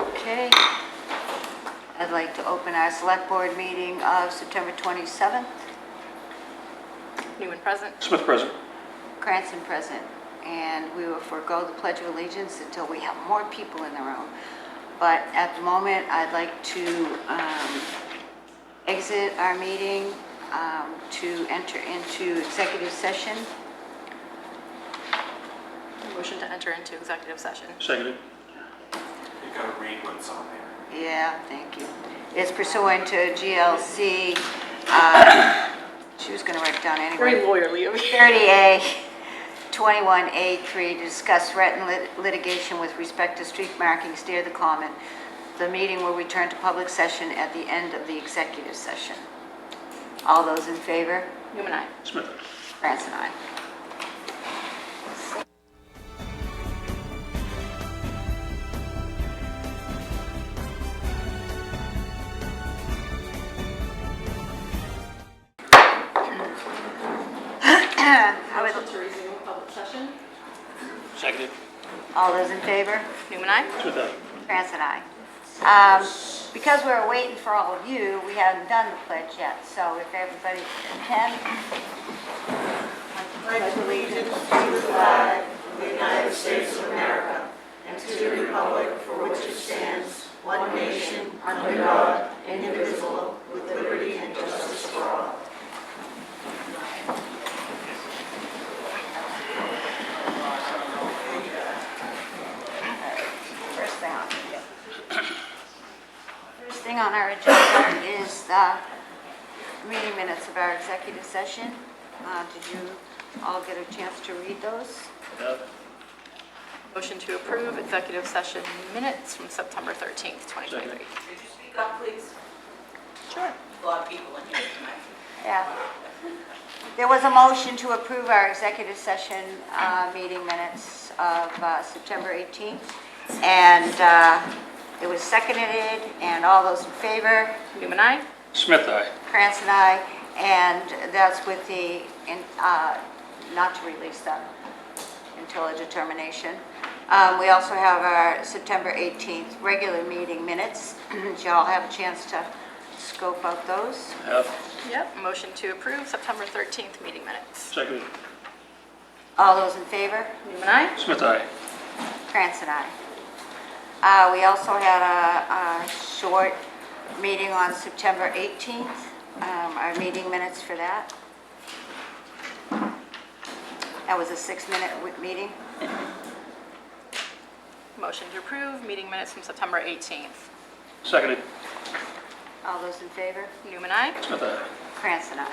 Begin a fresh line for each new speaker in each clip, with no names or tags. Okay. I'd like to open our select board meeting of September 27th.
Newman present.
Smith present.
Cranston present. And we will forego the Pledge of Allegiance until we have more people in the room. But at the moment, I'd like to um, exit our meeting um, to enter into executive session.
Motion to enter into executive session.
Seconded.
You gotta read what's on there.
Yeah, thank you. It's pursuant to GLC, uh, she was going to write it down anyway.
Very lawyerly of you.
30A, 21A3, to discuss threat and lit- litigation with respect to street markings near the common. The meeting will return to public session at the end of the executive session. All those in favor?
Newman, aye.
Smith.
France and I. I would-
to resume public session.
Seconded.
All those in favor?
Newman, aye.
Smith aye.
France and I. Um, Because we're waiting for all of you, we haven't done the pledge yet, so if everybody can. Pledge allegiance to the flag First thing on. First thing on our agenda is the meeting minutes of our executive session. Uh, Did you all get a chance to read those?
Motion to approve executive session minutes from September 13th, 2023.
Could you speak up, please?
Sure.
A lot of people in here tonight.
Yeah. There was a motion to approve our executive session uh, meeting minutes of uh, September 18th, and uh, it was seconded, and all those in favor?
Newman, aye.
Smith aye.
Krantz and I, and that's with the, in- uh, not to release them until a determination. Um, We also have our September 18th regular meeting minutes. Did y'all have a chance to scope out those?
Have.
Yep. Motion to approve September 13th meeting minutes.
Seconded.
All those in favor?
Newman, aye.
Smith aye.
Krantz and I. Uh, We also had a a short meeting on September 18th, um, our meeting minutes for that. That was a six-minute w- meeting.
Motion to approve meeting minutes from September 18th.
Seconded.
All those in favor?
Newman, aye.
Smith aye.
Krantz and I.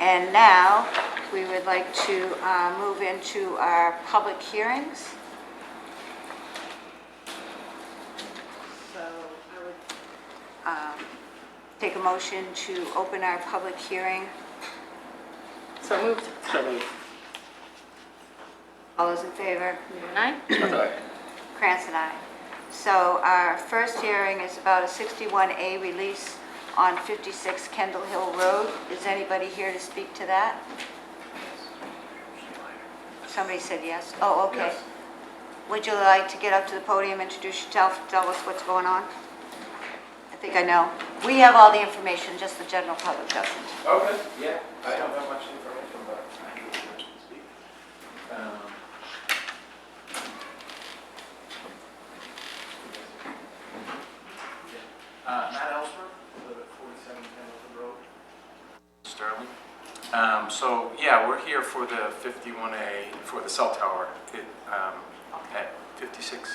And now, we would like to uh, move into our public hearings. So I would um, take a motion to open our public hearing.
So moved.
Seconded.
All those in favor?
Newman, aye.
Smith aye.
Krantz and I. So our first hearing is about a 61A release on 56 Kendall Hill Road. Is anybody here to speak to that? Somebody said yes. Oh, okay.
Yes.
Would you like to get up to the podium, introduce yourself, tell us what's going on? I think I know. We have all the information, just the general public doesn't.
Okay, yeah, I don't have much information, but I can speak. Um, Uh, Matt Ellsworth, I live at 47 Pendleton Road. Sterling. Um, so, yeah, we're here for the 51A, for the cell tower, it, um, at 56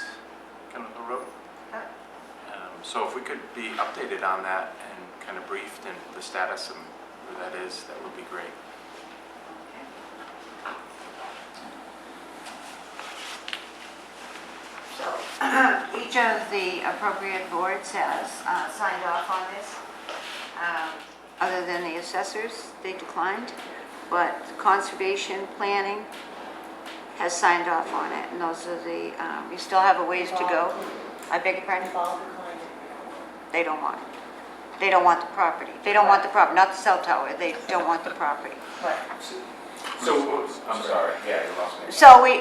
Pendleton Road. Um, So if we could be updated on that and kind of briefed and the status and where that is, that would be great.
So each of the appropriate boards has uh, signed off on this. Um, Other than the assessors, they declined, but conservation planning has signed off on it, and those are the, um, you still have a ways to go. I beg your pardon? They don't want it. They don't want the property. They don't want the prop, not the cell tower, they don't want the property.
So, I'm sorry, yeah, you lost me.
So we,